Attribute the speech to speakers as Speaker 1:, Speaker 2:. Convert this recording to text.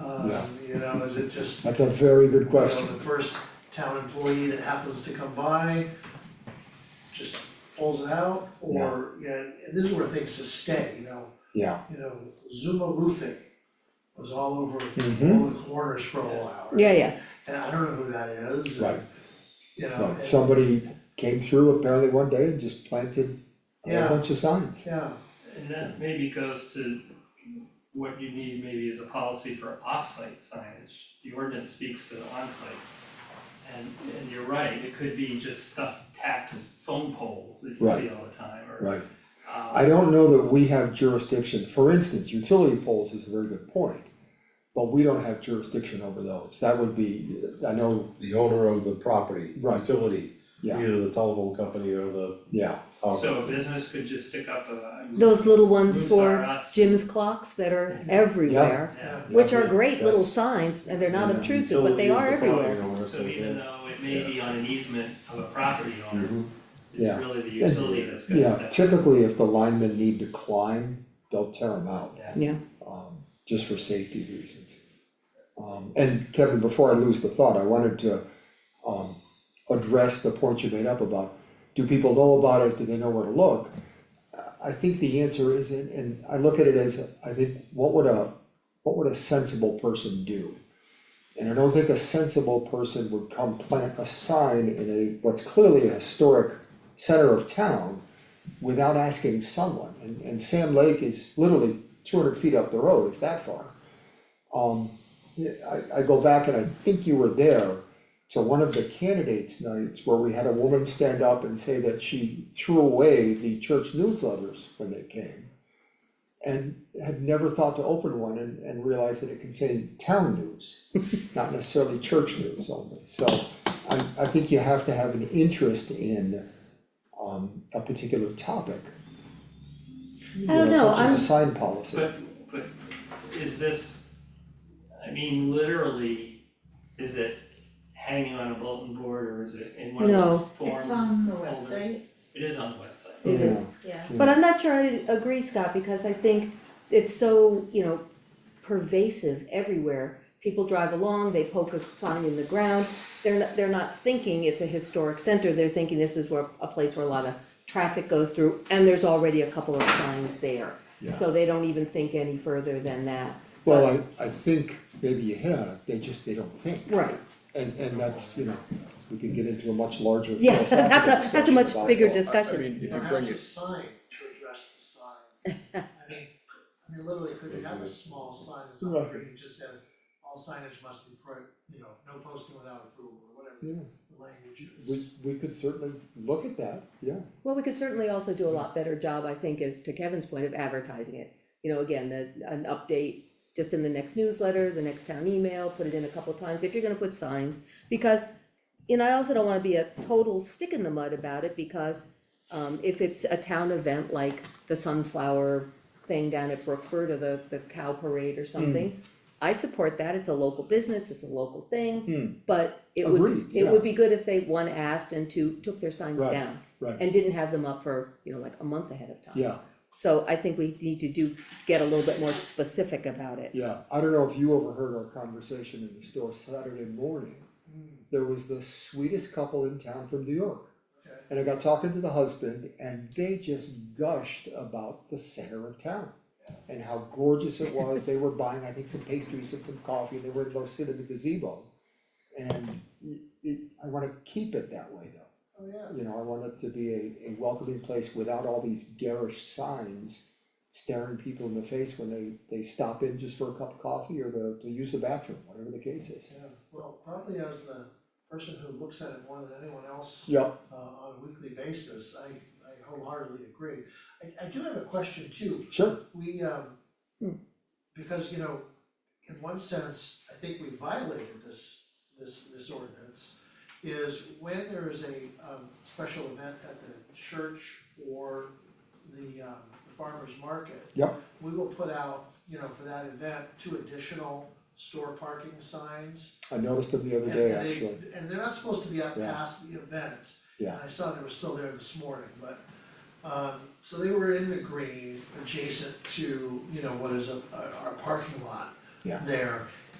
Speaker 1: Yeah.
Speaker 2: Um, you know, is it just, you
Speaker 1: That's a very good
Speaker 2: know,
Speaker 1: question.
Speaker 2: the first town employee that happens to come by just pulls it out, or, you know, and this is where things just stay, you know,
Speaker 1: Yeah.
Speaker 2: you know, Zuma Roofing was all over
Speaker 1: Mhm.
Speaker 2: all the corners for a while.
Speaker 3: Yeah, yeah,
Speaker 2: And I don't know who that is, and,
Speaker 1: Right.
Speaker 2: you know,
Speaker 1: Right.
Speaker 2: and-
Speaker 1: Somebody came through apparently one day and just planted a
Speaker 2: Yeah.
Speaker 1: whole bunch of signs.
Speaker 2: yeah,
Speaker 4: And that maybe goes to what you need maybe is a policy for off-site signage, the ordinance speaks to on-site. And and you're right, it could be just stuff tacked to phone poles that you see all the time, or
Speaker 1: Right.
Speaker 4: um,
Speaker 1: I don't know that we have jurisdiction, for instance, utility poles is a very good point. But we don't have jurisdiction over those, that would be, I know,
Speaker 5: the owner of the property,
Speaker 1: Right.
Speaker 5: utility,
Speaker 1: Yeah.
Speaker 5: either the telephone company or the
Speaker 1: yeah,
Speaker 5: power
Speaker 4: So a
Speaker 5: company.
Speaker 4: business could just stick up a.
Speaker 3: those little ones
Speaker 4: Moves are
Speaker 3: for
Speaker 4: us.
Speaker 3: Jim's clocks that are everywhere,
Speaker 4: Yeah,
Speaker 3: which are great little
Speaker 1: That's-
Speaker 3: signs, and they're not
Speaker 1: Yeah.
Speaker 3: obtrusive, but they are
Speaker 5: Utility is the
Speaker 3: everywhere.
Speaker 5: property owner,
Speaker 4: so even though it may be on an easement of a property owner,
Speaker 5: Mhm.
Speaker 1: Mm-hmm.
Speaker 4: it's
Speaker 1: Yeah.
Speaker 4: really the utility that's gonna
Speaker 1: yeah,
Speaker 4: step.
Speaker 1: typically if the linemen need to climb, they'll tear them out.
Speaker 4: Yeah.
Speaker 1: um, just for safety reasons. Um, and Kevin, before I lose the thought, I wanted to, um, address the point you made up about, do people know about it, do they know where to look? I- I think the answer is, and, and I look at it as, I think, what would a, what would a sensible person do? And I don't think a sensible person would come plant a sign in a, what's clearly a historic center of town without asking someone, and, and Sam Lake is literally two hundred feet up the road, if that far. Um, yeah, I, I go back and I think you were there to one of the candidates nights where we had a woman stand up and say that she threw away the church newsletters when they came. And had never thought to open one and, and realized that it contained town news, not necessarily church news only, so. I, I think you have to have an interest in, um, a particular topic.
Speaker 3: I don't know,
Speaker 1: Such
Speaker 3: I'm,
Speaker 1: as a sign policy.
Speaker 4: But but is this, I mean, literally, is it hanging on a bulletin board or is it in one of
Speaker 3: No.
Speaker 4: those form?
Speaker 6: It's on the
Speaker 4: holders?
Speaker 6: website,
Speaker 4: It is on the website.
Speaker 3: it is,
Speaker 6: yeah.
Speaker 3: but I'm not sure I agree, Scott, because I think it's so, you know, pervasive everywhere. People drive along, they poke a sign in the ground, they're not, they're not thinking it's a historic center, they're thinking this is where, a place where a lot of traffic goes through, and there's already a couple of signs there.
Speaker 1: Yeah.
Speaker 3: So they don't even think any further than that.
Speaker 1: Well, I, I think maybe you hit on it, they just, they don't think,
Speaker 3: Right,
Speaker 1: and, and that's, you know, we could get into a much larger
Speaker 3: yeah,
Speaker 1: philosophical
Speaker 3: that's a, that's a much
Speaker 1: discussion about
Speaker 3: bigger
Speaker 1: that.
Speaker 3: discussion.
Speaker 7: I mean,
Speaker 2: you
Speaker 7: if
Speaker 2: know,
Speaker 7: you
Speaker 2: how's
Speaker 7: bring
Speaker 2: a
Speaker 7: it,
Speaker 2: sign to address the sign? I mean, could- I mean, literally, could you have a small sign that's on the
Speaker 1: Right.
Speaker 2: green, just says, all signage must be pro, you know, no posting without approval, or whatever
Speaker 1: Yeah,
Speaker 2: the language is.
Speaker 1: we, we could certainly look at that, yeah,
Speaker 3: Well, we could certainly also do a lot better job, I think, is to Kevin's point of advertising it. You know, again, the, an update just in the next newsletter, the next town email, put it in a couple of times, if you're gonna put signs. Because, and I also don't wanna be a total stick in the mud about it, because um, if it's a town event like the sunflower thing down at Brookford or the, the cow parade or
Speaker 1: Hmm.
Speaker 3: something. I support that, it's a local business, it's a local thing, but it would,
Speaker 1: Hmm. Agreed,
Speaker 3: it
Speaker 1: yeah.
Speaker 3: would be good if they, one, asked and two, took their signs
Speaker 1: Right.
Speaker 3: down
Speaker 1: right,
Speaker 3: and didn't have them up for, you know, like a month ahead of time.
Speaker 1: yeah,
Speaker 3: So I think we need to do, get a little bit more specific about it.
Speaker 1: yeah. I don't know if you overheard our conversation in the store Saturday morning. There was the sweetest couple in town from New York.
Speaker 2: Okay.
Speaker 1: And I got talking to the husband and they just gushed about the center of town. And how gorgeous it was, they were buying, I think, some pastries and some coffee, they were in Los City, the gazebo. And it, it, I wanna keep it that way though,
Speaker 2: Oh, yeah.
Speaker 1: you know, I want it to be a, a welcoming place without all these garish signs. Staring people in the face when they, they stop in just for a cup of coffee or to, to use the bathroom, whatever the case is.
Speaker 2: Yeah, well, probably as the person who looks at it more than anyone else
Speaker 1: Yeah,
Speaker 2: uh on a weekly basis, I I wholeheartedly agree. I I do have a question too,
Speaker 1: sure,
Speaker 2: we um.
Speaker 3: Hmm.
Speaker 2: Because, you know, in one sense, I think we violated this this this ordinance. Is when there is a um special event at the church or the um the farmer's market.
Speaker 1: Yep.
Speaker 2: We will put out, you know, for that event, two additional store parking signs.
Speaker 1: I noticed them the other
Speaker 2: and
Speaker 1: day,
Speaker 2: they-
Speaker 1: actually,
Speaker 2: And they're not supposed to be up
Speaker 1: Yeah.
Speaker 2: past the event.
Speaker 1: yeah,
Speaker 2: I saw they were still there this morning, but, um, so they were in the green adjacent to, you know, what is a, a- our parking lot
Speaker 1: Yeah.
Speaker 2: there.